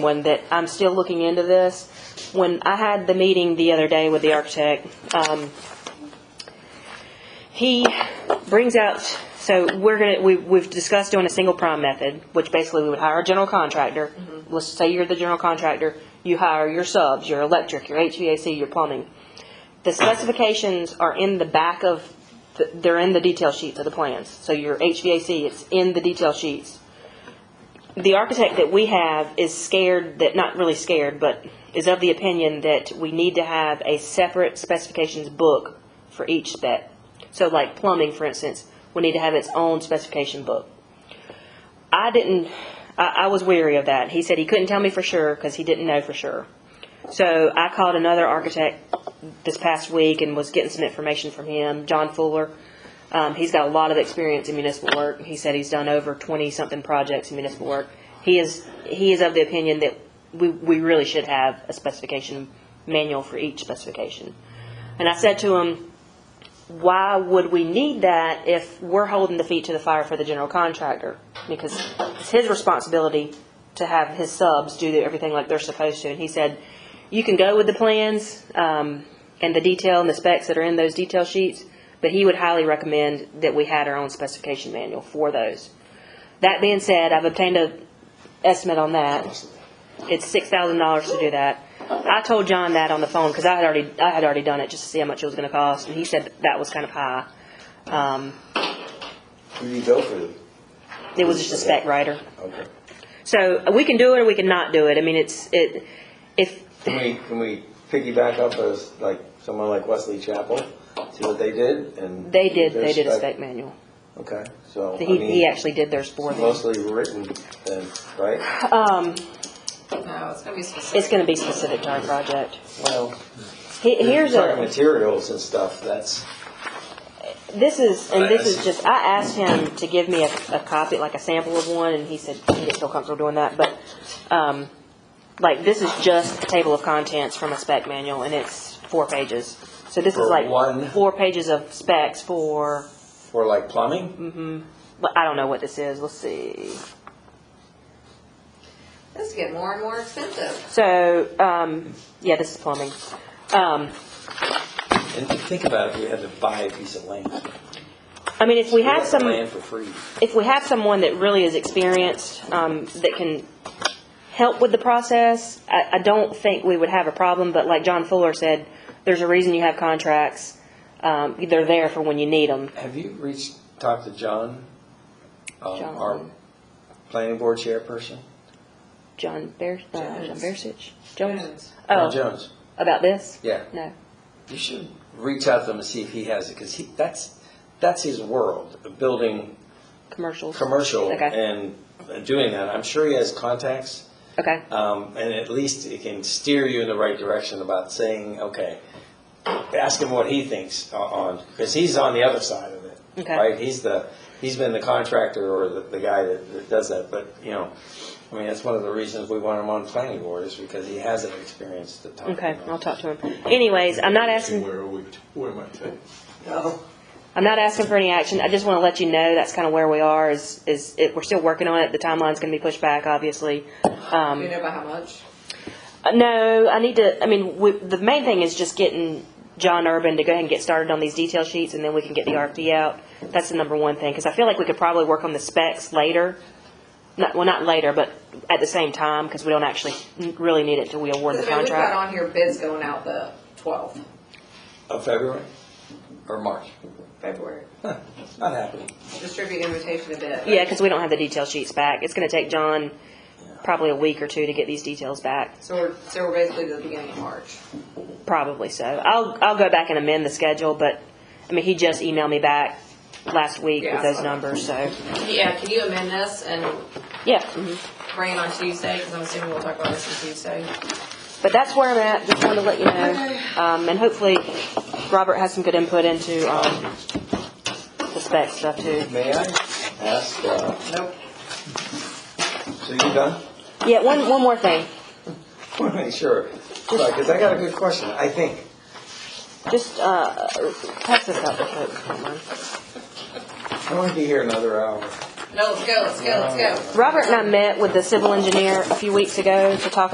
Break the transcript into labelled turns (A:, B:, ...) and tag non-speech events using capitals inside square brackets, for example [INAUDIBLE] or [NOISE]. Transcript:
A: one that I'm still looking into this. When I had the meeting the other day with the architect, um, he brings out, so we're gonna, we, we've discussed doing a single prime method, which basically we would hire a general contractor. Let's say you're the general contractor, you hire your subs, your electric, your HVAC, your plumbing. The specifications are in the back of, the- they're in the detail sheets of the plans. So your HVAC, it's in the detail sheets the architect that we have is scared that, not really scared, but is of the opinion that we need to have a separate specifications book for each spec. So like plumbing, for instance, we need to have its own specification book. I didn't, I, I was weary of that. He said he couldn't tell me for sure because he didn't know for sure. So I called another architect this past week and was getting some information from him, John Fuller. Um, he's got a lot of experience in municipal work. He said he's done over twenty-something projects in municipal work. He is, he is of the opinion that we, we really should have a specification manual for each specification. And I said to him, why would we need that if we're holding the feet to the fire for the general contractor? Because it's his responsibility to have his subs do everything like they're supposed to. And he said, you can go with the plans, um, and the detail and the specs that are in those detail sheets, but he would highly recommend that we had our own specification manual for those. That being said, I've obtained a estimate on that. It's six thousand dollars to do that. I told John that on the phone, cause I had already, I had already done it just to see how much it was gonna cost, and he said that was kind of high. Um,
B: Who do you go for?
A: it was just a spec writer.
B: Okay.
A: So uh, we can do it or we can not do it. I mean, it's, it, if,
B: Can we, can we piggyback up as, like, someone like Wesley Chapel, see what they did and?
A: they did, they did a
B: their
A: spec manual.
B: Okay, so, I
A: He, he
B: mean,
A: actually did theirs for them.
B: mostly written then, right?
A: Um,
C: No, it's gonna be specific.
A: it's gonna be specific to our project.
B: Well,
A: He- Here's
B: talking
A: a,
B: materials and stuff, that's,
A: this is, and this is just, I asked him to give me a, a copy, like a sample of one, and he said he didn't feel comfortable doing that, but, um, like, this is just a table of contents from a spec manual, and it's four pages. So this is
B: For
A: like
B: one?
A: four pages of specs for,
B: for like
A: Mm-hmm.
B: plumbing?
A: well, I don't know what this is, let's see.
C: This is getting more and more expensive.
A: So, um, yeah, this is plumbing. Um,
B: And think about if we had to buy a piece of land.
A: I mean, if we have some.
B: Land for free.
A: if we have someone that really is experienced, um, that can help with the process, I, I don't think we would have a problem, but like John Fuller said, there's a reason you have contracts. Um, they're there for when you need them.
B: Have you reached, talked to John? um,
A: John.
B: Our planning board chairperson?
A: John Bear, uh, John
C: Jones.
A: Bersich? Jones?
C: Jones.
B: John
A: Oh,
B: Jones,
A: about this?
B: yeah.
A: No.
B: You should reach out to him and see if he has it, because he, that's, that's his world, of building
A: Commercials?
B: commercial
A: Okay,
B: and doing that. I'm sure he has contacts,
A: okay.
B: um, and at least it can steer you in the right direction about saying, okay, ask him what he thinks o- on, because he's on the other side of it.
A: Okay.
B: Right, he's the, he's been the contractor or the, the guy that, that does that, but, you know, I mean, that's one of the reasons we want him on planning board, is because he has that experience to talk
A: Okay, I'll
B: about.
A: talk to him. Anyways, I'm not asking.
D: Where are we, where am I taking?
A: I'm not asking for any action. I just want to let you know that's kind of where we are. Is is it, we're still working on it. The timeline's going to be pushed back, obviously.
C: Do you know by how much?
A: Uh, No, I need to, I mean, we, the main thing is just getting John Urban to go ahead and get started on these detail sheets, and then we can get the RFP out. That's the number one thing, because I feel like we could probably work on the specs later. Not, well, not later, but at the same time, because we don't actually n- really need it till we award the
C: Because, I mean, we've got
A: contract.
C: on here bids going out the twelfth
B: Of February or March?
C: February.
B: Huh, Not happening.
C: Distribute invitation to bid.
A: Yeah, because we don't have the detail sheets back. It's gonna take John probably a week or two to get these details back,
C: So we're, so we're basically the beginning of March.
A: probably so. I'll, I'll go back and amend the schedule, but, I mean, he just emailed me back last week
C: Yeah,
A: with
C: I
A: those
C: saw that.
A: numbers, so,
C: Yeah, can you amend this and
A: yeah. mhm.
C: bring it on Tuesday, because I'm assuming we'll talk about this on Tuesday?
A: But that's where I'm at, just wanted to let you know. Um, and hopefully Robert has some good input into, um, the spec stuff too.
B: May I ask, uh,
C: Nope.
B: so you done? [LAUGHS]
A: Yeah, one, one more thing,
B: I want to make sure, because I got a good question, I think.
A: just, uh, pass this out real quick, if you don't mind.
B: I want to be here another hour.
C: No, let's go, let's go, let's go.
A: Robert and I met with the civil engineer a few weeks ago to talk